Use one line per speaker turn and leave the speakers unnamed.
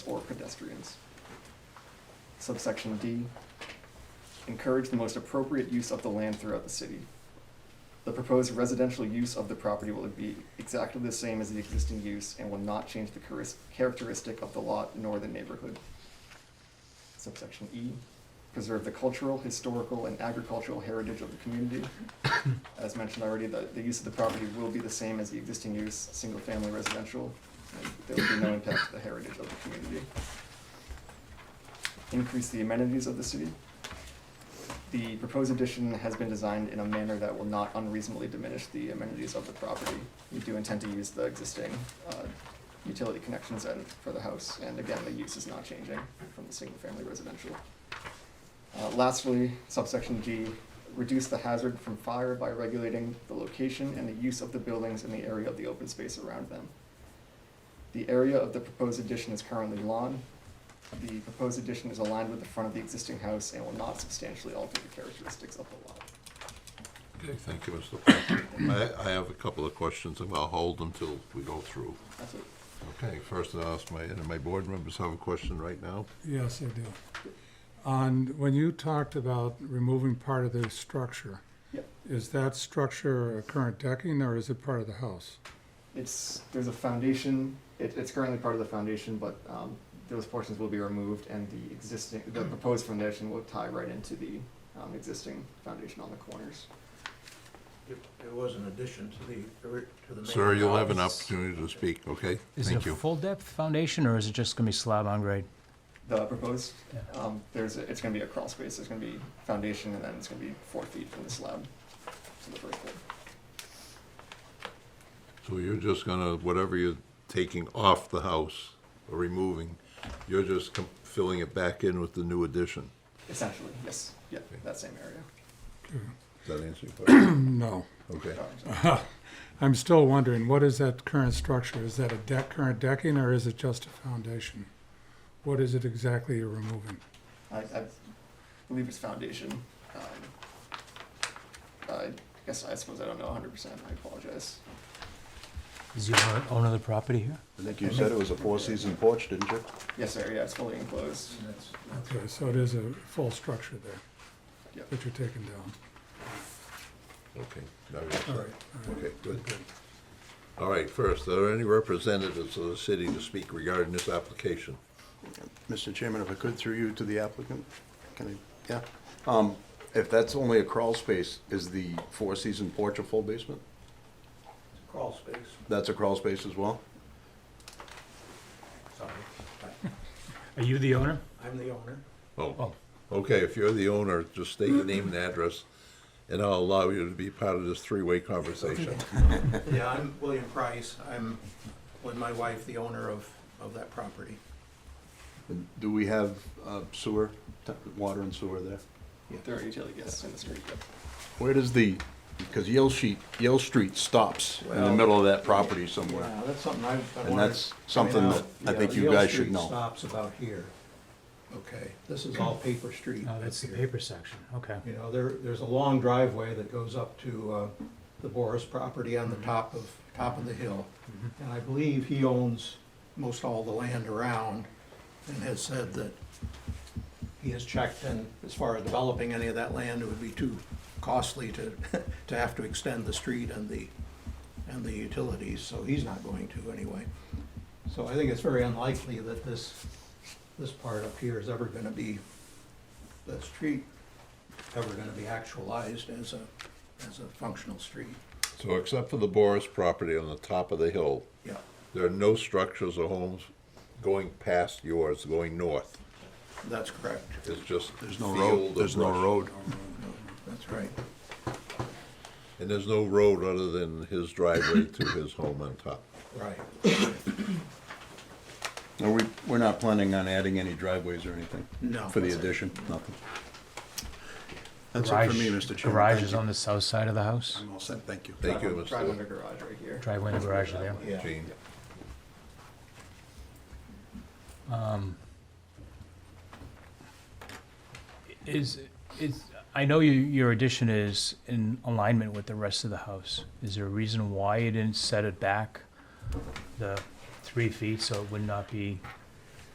or pedestrians. Subsection D, encourage the most appropriate use of the land throughout the city. The proposed residential use of the property will be exactly the same as the existing use and will not change the charis- characteristic of the lot nor the neighborhood. Subsection E, preserve the cultural, historical, and agricultural heritage of the community. As mentioned already, the, the use of the property will be the same as the existing use, single-family residential. and There will be no impact to the heritage of the community. Increase the amenities of the city. The proposed addition has been designed in a manner that will not unreasonably diminish the amenities of the property. We do intend to use the existing, uh, utility connections and, for the house, and again, the use is not changing from the single-family residential. Uh, lastly, subsection G, reduce the hazard from fire by regulating the location and the use of the buildings in the area of the open space around them. The area of the proposed addition is currently lawn. The proposed addition is aligned with the front of the existing house and will not substantially alter the characteristics of the lot.
Okay, thank you, Mr. Parker. I, I have a couple of questions, and I'll hold them till we go through.
That's it.
Okay, first I'll ask my, and my board members have a question right now?
Yes, I do. On, when you talked about removing part of the structure,
Yep.
is that structure a current decking or is it part of the house?
It's, there's a foundation, it, it's currently part of the foundation, but, um, those portions will be removed and the existing, the proposed foundation will tie right into the, um, existing foundation on the corners.
It it was an addition to the, ori- to the main.
Sir, you'll have an
house.
opportunity to speak, okay?
Is it
Thank
a
you.
full depth foundation or is it just gonna be slab on grade?
The proposed,
Yeah.
um, there's, a- it's gonna be a crawl space, there's gonna be foundation, and then it's gonna be four feet from the slab to the first floor.
So you're just gonna, whatever you're taking off the house or removing, you're just com- filling it back in with the new addition.
Essentially, yes, yeah,
Okay.
that same area.
Does that answer your question?
No.
Okay,
Sorry, sorry.
I'm still wondering, what is that current structure? Is that a deck, current decking or is it just a foundation? What is it exactly you're removing?
I, I believe it's foundation. Um, I guess, I suppose I don't know hundred percent, I apologize.
Is the owner- owner of the property here?
I think you said it was a four-season porch, didn't you?
Yes, sir, yeah, it's fully enclosed.
And that's-
Okay, so it is a full structure there
Yep.
that you're taking down.
okay. Now you're set.
All right, all right.
Okay, good. All right, first, are there any representatives of the city to speak regarding this application?
Mr. Chairman, if I could, through you to the applicant, can I, yeah? Um, if that's only a crawl space, is the four-season porch a full basement?
it's a Crawl space,
That's a crawl space as well?
sorry.
Are you the owner?
I'm the owner.
Oh, okay, if you're the owner, just state your name and address, and I'll allow you to be part of this three-way conversation.
Yeah, I'm William Price. I'm with my wife, the owner of, of that property.
And Do we have uh, sewer, t- water and sewer there?
There are utility guests in the street, yep.
Where does the, because Yale Sheet, Yale Street stops in the
Well-
middle of that property somewhere.
Yeah, that's something I've been
And
wondering.
that's something
I mean,
that I
yeah,
think you
Yale
guys should
Street
know.
Stops about here. Okay, this is all paper street.
Oh, that's the
up here.
paper section, okay.
You know, there, there's a long driveway that goes up to uh, the Boris property on the top of, top of the hill. And I believe he owns most all the land around and has said that he has checked and as far as developing any of that land, it would be too costly to, to have to extend the street and the, and the utilities, so he's not going to anyway. So I think it's very unlikely that this, this part up here is ever gonna be, the street ever gonna be actualized as a, as a functional street.
So except for the Boris property on the top of the hill,
Yeah,
there are no structures or homes going past yours, going north.
that's correct.
It's just
There's no
field
road,
of
there's no
brush.
road.
That's right.
And there's no road other than his driveway to his home on top.
Right.
And we, we're not planning on adding any driveways or anything?
No.
For the addition, nothing? That's it for me,
Garage-
Mr. Chairman.
Garage
Thank
is
you.
on the south side of the house?
I'm all set, thank you.
Thank you,
Drive- Drive under
Mr.
garage right here.
Driveway and garage are there.
Yeah.
Jean.
Is, is, I know you, your addition is in alignment with the rest of the house. Is there a reason why you didn't set it back the three feet so it would not be